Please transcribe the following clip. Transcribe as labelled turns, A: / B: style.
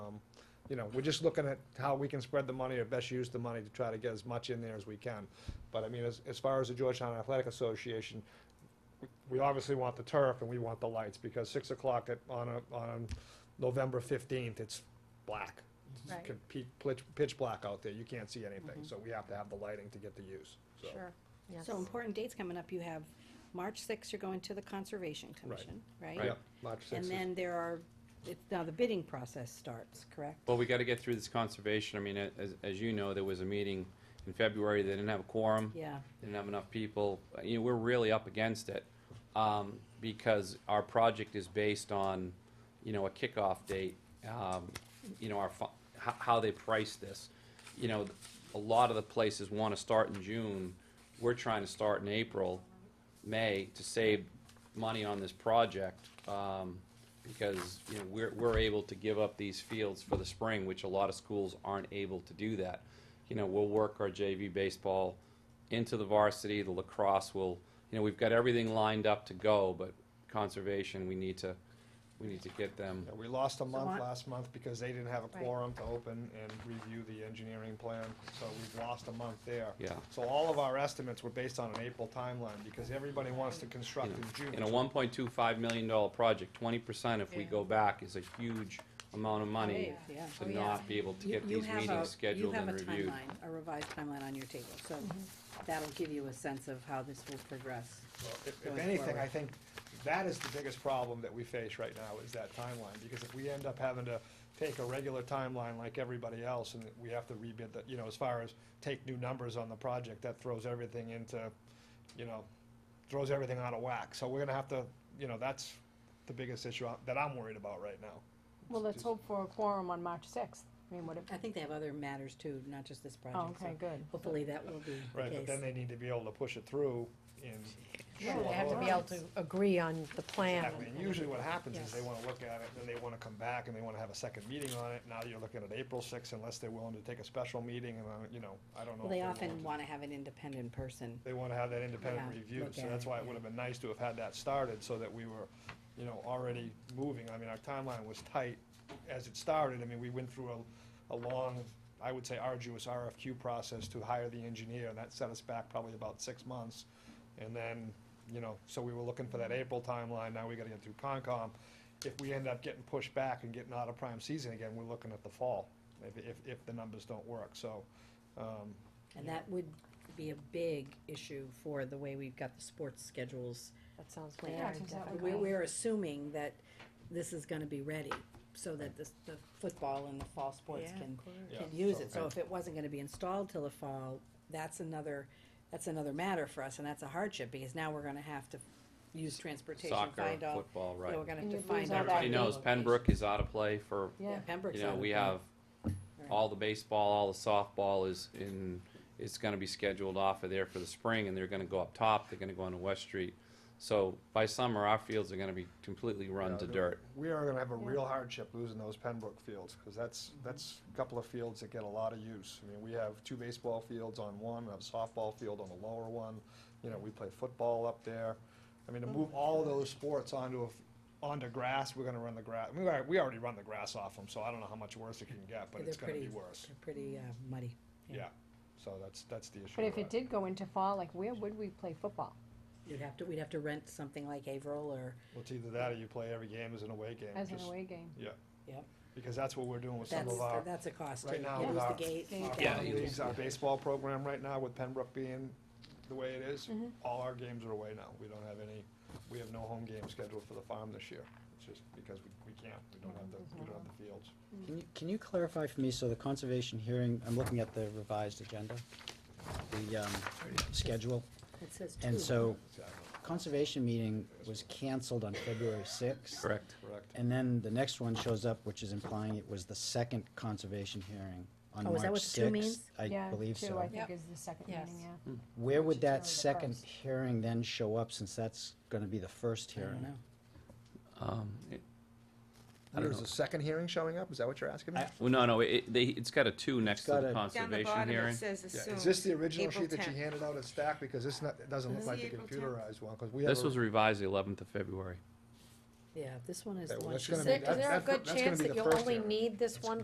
A: you know, we're just looking at how we can spread the money or best use the money to try to get as much in there as we can. But I mean, as, as far as the Georgetown Athletic Association, we obviously want the turf and we want the lights, because six o'clock at, on a, on November fifteenth, it's black. It's
B: Right.
A: compete- Pitch, pitch black out there, you can't see anything, so we have to have the lighting to get the use, so.
B: Sure, yes.
C: So important dates coming up. You have March sixth, you're going to the Conservation Commission, right?
A: Yep, March
C: And
A: sixth,
C: then there are, it- now the bidding process starts, correct?
D: Well, we gotta get through this conservation, I mean, a- as, as you know, there was a meeting in February, they didn't have a quorum.
C: Yeah,
D: They Didn't have enough people, Uh, you know, we're really up against it, um, because our project is based on, you know, a kickoff date, um, you know, our fu- how, how they price this. You know, a lot of the places wanna start in June, we're trying to start in April, May to save money on this project, um, because, you know, we're, we're able to give up these fields for the spring, which a lot of schools aren't able to do that. You know, we'll work our JV baseball into the varsity, the lacrosse will, you know, we've got everything lined up to go, but conservation, we need to, we need to get them.
A: we lost a month
C: on-
A: last month because they didn't have a
B: Right.
A: quorum to open and review the engineering plan, so we've lost a month there.
D: Yeah.
A: So all of our estimates were based on an April timeline, because everybody wants to construct
D: you know,
A: in June.
D: In a one point two five million dollar project, twenty percent if we
B: Yeah.
D: go back is a huge amount of money
C: Oh, yeah.
B: Oh,
D: to
B: yeah.
D: not be able to
C: You-
D: get
C: you
D: these
C: have a-
D: meetings scheduled and
C: You
D: reviewed.
C: have a timeline, a revised timeline on your table, so
E: Mm-hmm.
C: that'll give you a sense of how this will progress.
A: Well, if- If
C: going
A: anything,
C: forward.
A: I think that is the biggest problem that we face right now, is that timeline, because if we end up having to take a regular timeline like everybody else, and we have to rebid the, you know, as far as take new numbers on the project, that throws everything into, you know, throws everything out of whack, so we're gonna have to, you know, that's the biggest issue I- that I'm worried about right now.
E: Well, let's hope for a quorum on March sixth. I mean, what if,
C: I think they have other matters too, not just this
E: oh,
C: project. so
E: okay, good.
C: Hopefully that will be the
A: Right, but then
C: case.
A: they need to be able to push it through in
E: Yeah,
A: short
E: they have to be
A: order.
E: able to agree on the plan.
A: Exactly, and usually what happens is they
C: Yes.
A: wanna look at it, then they wanna come back and they wanna have a second meeting on it, now you're looking at April sixth unless they're willing to take a special meeting and, uh, you know, I don't know.
C: Well,
A: if
C: they
A: they're
C: often
A: willing to-
C: wanna have an independent person.
A: They wanna have that independent
C: Yeah,
A: review,
C: look
A: so
C: at
A: that's
C: it,
A: why it
C: yeah.
A: would've been nice to have had that started, so that we were, you know, already moving, I mean, our timeline was tight as it started, I mean, we went through a, a long, I would say arduous RFQ process to hire the engineer, and that set us back probably about six months. And then, you know, so we were looking for that April timeline, now we gotta get through Concom. If we end up getting pushed back and getting out of prime season again, we're looking at the fall, if, if, if the numbers don't work, so, um,
C: And that would be a big issue for the way we've got the sports schedules.
E: That sounds
C: planned.
E: very
B: seems that
E: difficult.
C: We're, we're assuming that this is gonna be ready, so that this, the football and the fall sports can,
A: Yeah,
C: can use
A: so-
C: it. So if it wasn't gonna be installed till the fall, that's another, that's another matter for us, and that's a hardship, because now we're gonna have to use transportation,
D: Soccer,
C: find out.
D: football,
C: Yeah,
D: right.
C: we're gonna
E: And
C: have to
E: you
C: find
E: lose
C: out.
E: all
D: Everybody
E: that
D: knows Pembroke is out of play for,
C: Yeah,
E: Yeah,
C: Pembroke's
D: you
C: out
D: know,
C: of
D: we
C: it.
D: have
C: Right.
D: all the baseball, all the softball is in, it's gonna be scheduled off of there for the spring, and they're gonna go up top, they're gonna go onto West Street. So by summer, our fields are gonna be completely run to
A: Yeah,
D: dirt.
A: We are gonna have a real hardship losing those Pembroke fields, because that's,
E: Mm-hmm.
A: that's a couple of fields that get a lot of use. I mean, we have two baseball fields on one, a softball field on the lower one, you know, we play football up there. I mean, to
E: Mm-hmm.
A: move all those sports onto a, f- onto grass, we're gonna run the grass, we already, we already run the grass off them, so I don't know how much worse it can get, but
C: Yeah,
A: it's
C: they're
A: gonna be
C: pretty-
A: worse.
C: They're pretty uh, muddy. yeah.
A: Yeah, so that's, that's the issue.
E: But if
A: with
E: it did go into fall, like where would we play football?
C: You'd have to, we'd have to rent something like Haverhill or,
A: Well, it's either that or you play every game as an away game.
E: As an
A: just-
E: away game?
A: Yeah,
C: yep,
A: because that's what we're doing with some
C: that's,
A: of our.
C: that's a cost too.
A: right now
C: You
A: with
C: lose
A: our- uh,
C: the gate.
E: our
C: yeah.
A: farm leagues, our baseball program right now with Pembroke being the way it is,
E: Mm-hmm.
A: all our games are away now. We don't have any, we have no home game scheduled for the farm this year. It's just because we, we can't, we don't have the, we don't have the fields.
F: Can you, can you clarify for me, so the conservation hearing, I'm looking at the revised agenda, the, um, schedule,
C: It says two.
F: and so
A: Exactly,
F: conservation meeting was canceled on February sixth.
D: Correct.
A: correct.
F: And then the next one shows up, which is implying it was the second conservation hearing on
C: Oh, is
F: March sixth.
C: that what the two means?
F: I believe
E: Yeah, two, I
F: so.
B: Yep.
E: think is the second
B: Yes.
E: meeting, yeah.
F: Where would
E: Should tell me
F: that
E: the
F: second
E: first.
F: hearing then show up, since that's gonna be the first
C: I don't
F: hearing?
C: know.
D: Um, it- I don't
A: There's
D: know.
A: a second hearing showing up? Is that what you're asking me?
F: I-
D: Well, no, no, it, they, it's got a two next to
F: got
D: the
F: a-
G: Down the
D: conservation
G: bottom, it
D: hearing.
G: says
A: Yeah,
G: assume.
A: is this the original
G: April
A: sheet that you
G: 10th.
A: handed out at stack? Because it's not, it doesn't look
G: Is
A: like
G: it
A: the
G: April 10th?
A: computerized one, because we have.
D: This
A: a-
D: was revised the eleventh of February.
C: Yeah, this one is
A: Okay,
C: the
A: well,
C: one
A: that's
C: she
A: gonna
E: Is
A: be-
E: there,
C: said.
A: that-
E: is there a
A: that's-
E: good
A: that's gonna
E: chance
A: be
E: that
A: the
E: you'll
A: first
E: only
A: hearing.
E: need this one